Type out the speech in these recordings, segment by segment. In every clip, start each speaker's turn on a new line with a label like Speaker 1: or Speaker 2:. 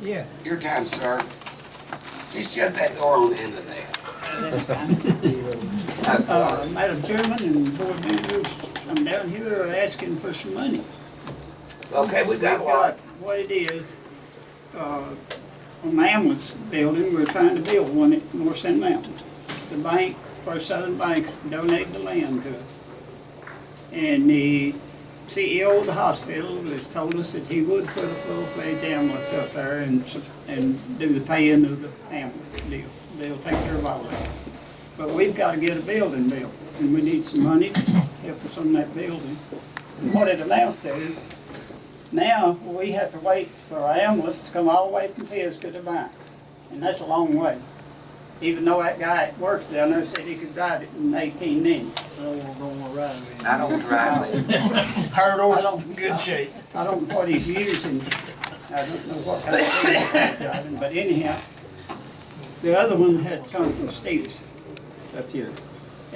Speaker 1: Yeah.
Speaker 2: Your time, sir. Just shut that door on the end of there. That's all.
Speaker 1: Uh, Madam Chairman and board members, I'm down here asking for some money.
Speaker 2: Okay, we got one.
Speaker 1: What it is, uh, on the ambulance building, we're trying to build one at North Sand Mountain. The bank, First Southern Bank donated the land to us. And the CEO of the hospital has told us that he would put a full-fledged ambulance up there and, s- and do the paying of the ambulance deal. They'll take care of all that. But we've gotta get a building built, and we need some money to help us on that building. And What it amounts to now, we have to wait for our ambulance to come all the way from Pisgah to Bank, and that's a long way. Even though that guy that works down there said he could drive it in eighteen minutes.
Speaker 3: No, we're gonna ride with it.
Speaker 2: I don't drive it.
Speaker 1: I
Speaker 4: Hurdles,
Speaker 1: don't-
Speaker 4: good shape.
Speaker 1: I don't know what he's using, I don't know what kind of thing he's driving, but anyhow, the other one has to come from Stevenson up here.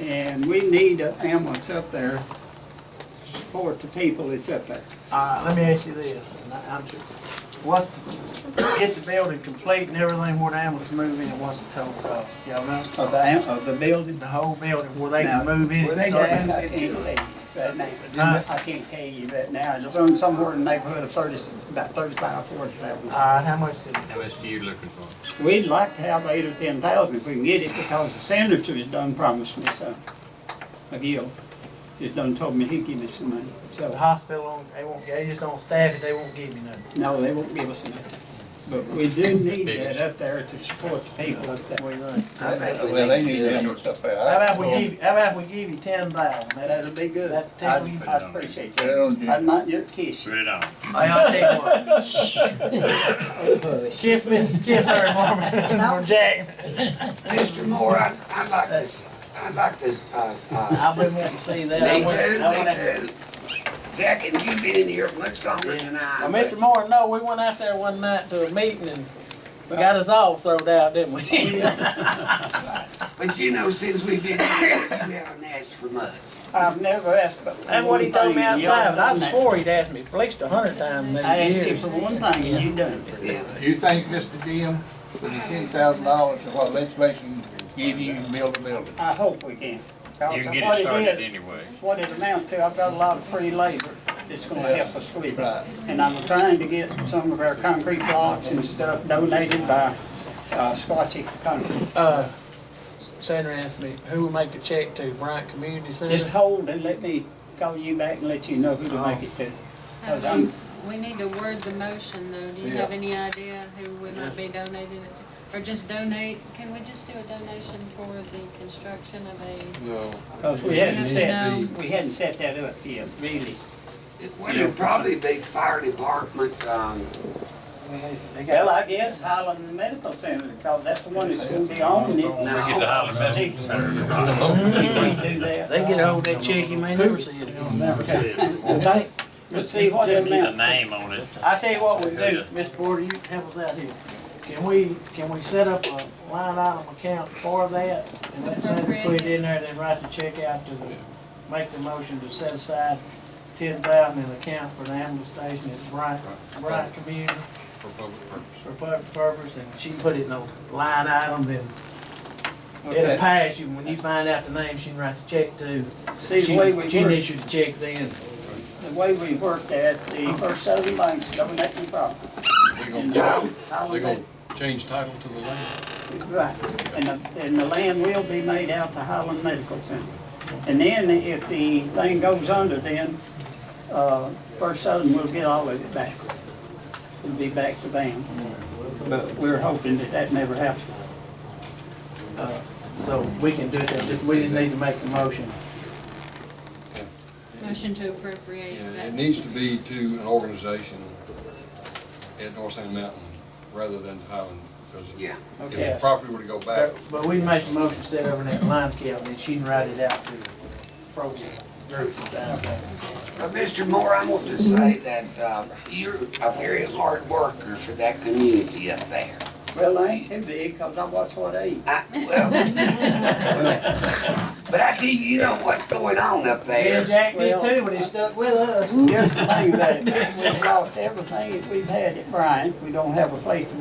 Speaker 1: And we need an ambulance up there to support the people that's up there.
Speaker 4: Uh, let me ask you this, and I, I'm ju- what's the, get the building complete and everything where the ambulance move in, what's the total cost, y'all know?
Speaker 1: Of the, am- of the building.
Speaker 4: The whole building where they can
Speaker 1: Now,
Speaker 4: move in
Speaker 2: where
Speaker 4: and
Speaker 2: they
Speaker 4: start.
Speaker 2: can-
Speaker 1: And I can't tell you that now.
Speaker 4: Huh?
Speaker 1: I can't tell you that now, it's on somewhere in the neighborhood of thirty, about thirty-five, forty thousand.
Speaker 4: Uh, how much did,
Speaker 5: How much do you looking for?
Speaker 1: We'd like to have eight or ten thousand if we can get it, because the senator has done promised me some. McGill has done told me he'd give me some money,
Speaker 4: the
Speaker 1: so,
Speaker 4: hospital, on- they won't, they just don't staff it, they won't give you nothing.
Speaker 1: no, they won't give us enough. But we do need that up there to support the people
Speaker 4: What
Speaker 1: up there.
Speaker 4: do you think?
Speaker 2: I think
Speaker 6: Well, they
Speaker 2: we
Speaker 6: need
Speaker 2: need
Speaker 6: to
Speaker 2: to. do
Speaker 6: handle
Speaker 2: it.
Speaker 6: stuff out.
Speaker 4: How about we give, you- how about we give you ten thousand?
Speaker 1: That'd be good.
Speaker 4: That's
Speaker 1: I
Speaker 4: ten, we,
Speaker 1: I appreciate
Speaker 6: Put it
Speaker 1: that.
Speaker 6: on Jim.
Speaker 1: I'm not your kiss.
Speaker 5: Put it on.
Speaker 4: Hey, I'll tell you what. Kiss me, kiss her for me, for Jack.
Speaker 2: Mr. Moore, I, I'd like this, I'd like this, uh, uh,
Speaker 3: I've been wanting to see that. I
Speaker 2: me
Speaker 3: went- I went out-
Speaker 2: too, me too. Jack, and you've been in here much longer than I.
Speaker 3: Well,
Speaker 2: but-
Speaker 3: Mr. Moore, no, we went out there one night to a meeting and we got us all thrown out, didn't we?
Speaker 2: But you know, since we've been here, you haven't asked for much.
Speaker 1: I've never asked but.
Speaker 3: That's what he told me outside, and I
Speaker 1: was
Speaker 3: swore he'd asked me at least a hundred times
Speaker 1: I
Speaker 3: in
Speaker 1: asked you
Speaker 3: years.
Speaker 1: for one thing and you done it.
Speaker 2: Yeah.
Speaker 6: You think, Mr. Jim, with the ten thousand dollars of what legislation give you, you can build a building?
Speaker 1: I hope we can.
Speaker 5: You
Speaker 1: Because
Speaker 5: can get
Speaker 1: what
Speaker 5: it started
Speaker 1: is,
Speaker 5: anyway.
Speaker 1: What it amounts to, I've got a lot of free labor that's gonna help us with
Speaker 6: Right.
Speaker 1: it. And I'm trying to get some of our concrete blocks and stuff donated by, uh, Scotchy Concrete.
Speaker 3: Uh, Sandra asked me, who will make the check to Bryant Community Center?
Speaker 1: Just hold and let me call you back and let you know who
Speaker 5: Oh.
Speaker 1: to make it to. Cause I'm,
Speaker 7: Uh, We need to word the motion though. Do you have any idea who we might be donating it to? Or just donate, can we just do a donation for the construction of a,
Speaker 1: cause we hadn't
Speaker 7: No.
Speaker 1: set, we hadn't set that up yet, really.
Speaker 2: Well, it'd probably be fire department, um,
Speaker 1: Well, I guess Highland Medical Center, cause that's the one that's gonna be on it.
Speaker 2: No.
Speaker 5: Get the Highland Medical
Speaker 1: Six.
Speaker 5: Center. to
Speaker 1: We do that. Uh,
Speaker 3: They get hold of that check, you may never see it again.
Speaker 5: rock.
Speaker 3: Okay.
Speaker 1: Let's see what it
Speaker 5: Need a
Speaker 1: amounts to.
Speaker 5: name on it.
Speaker 3: I tell you what we do, Mr. Porter, you help us out here. Can we, can we set up a line item account for that? And let Sandra put it in there, then write the check out to the, make the motion to set aside ten thousand in account for the ambulance station at Bryant, Bryant Community
Speaker 5: For public purpose.
Speaker 3: for public purpose, and she put it in a line item, then it'll
Speaker 6: Okay,
Speaker 3: pass you, when you find out the name, she can write the check to.
Speaker 1: See, the way we
Speaker 3: She
Speaker 1: work-
Speaker 3: can issue the check then.
Speaker 1: The way we work that, the First Southern Bank's donating property. They're gonna
Speaker 8: change title to the land.
Speaker 1: Right, and the, and the land will be made out to Highland Medical Center. And then if the thing goes under, then, uh, First Southern will get all of it back. It'll be back to them. But we're hoping that that never happens.
Speaker 3: uh, So we can do it, just- we just need to make the motion.
Speaker 7: motion to appropriate
Speaker 8: Yeah, it
Speaker 7: that?
Speaker 8: needs to be to an organization at North Sand Mountain rather than Highland, because
Speaker 2: yeah.
Speaker 8: if
Speaker 1: Okay.
Speaker 8: the property were to go back,
Speaker 3: But but we make the motion set over in that line count, and she can write it out to the program group.
Speaker 2: But Mr. Moore, I want to say that uh, you're a very hard worker for that community up there.
Speaker 1: Well, they ain't too big, cause I watch what they eat.
Speaker 2: I, well, but I tell you, you know what's going on up
Speaker 3: Yeah,
Speaker 2: there.
Speaker 3: Jack did too, but he stuck with us.
Speaker 1: Here's the thing about it, we've lost everything that we've had at Bryan, we don't have a place to